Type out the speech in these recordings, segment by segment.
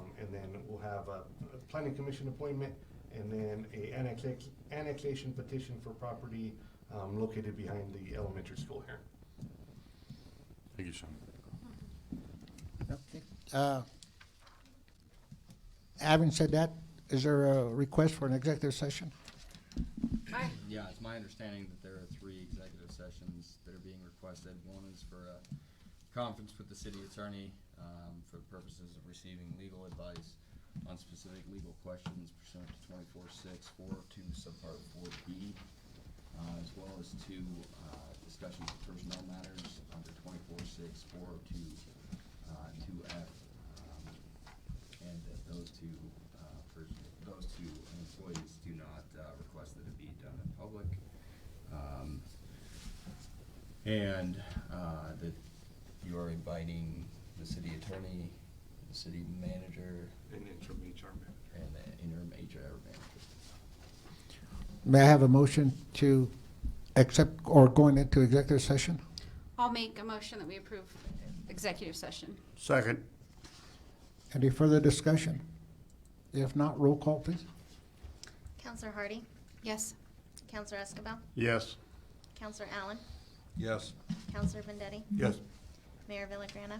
Um, We'll have a a planning commission appointment and then a annex- annexation petition for property um, located behind the elementary school here. Thank you, Sean. Uh, Having said that, is there a request for an executive session? Yeah, it's my understanding that there are three executive sessions that are being requested. One is for a conference with the city attorney um, for purposes of receiving legal advice on specific legal questions pursuant to twenty-four six four oh two subpart four B, uh, as well as two uh, discussions of personnel matters under twenty-four six four oh two uh, two F. um, And that those two, uh, pers- those two employees do not uh, request that it be done in public. Um, And uh, that you are inviting the city attorney, the city manager, And interim HR manager. and the interim HR manager. May I have a motion to accept or going into executive session? I'll make a motion that we approve executive session. Second. Any further discussion? If not, roll call, please. Counselor Hardy, Yes. Counselor Escabel, Yes. Counselor Allen, Yes. Counselor Vendetti, Yes. Mayor Villagrana.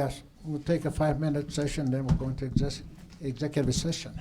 Yes, we'll take a five-minute session, then we'll go into exec- executive session.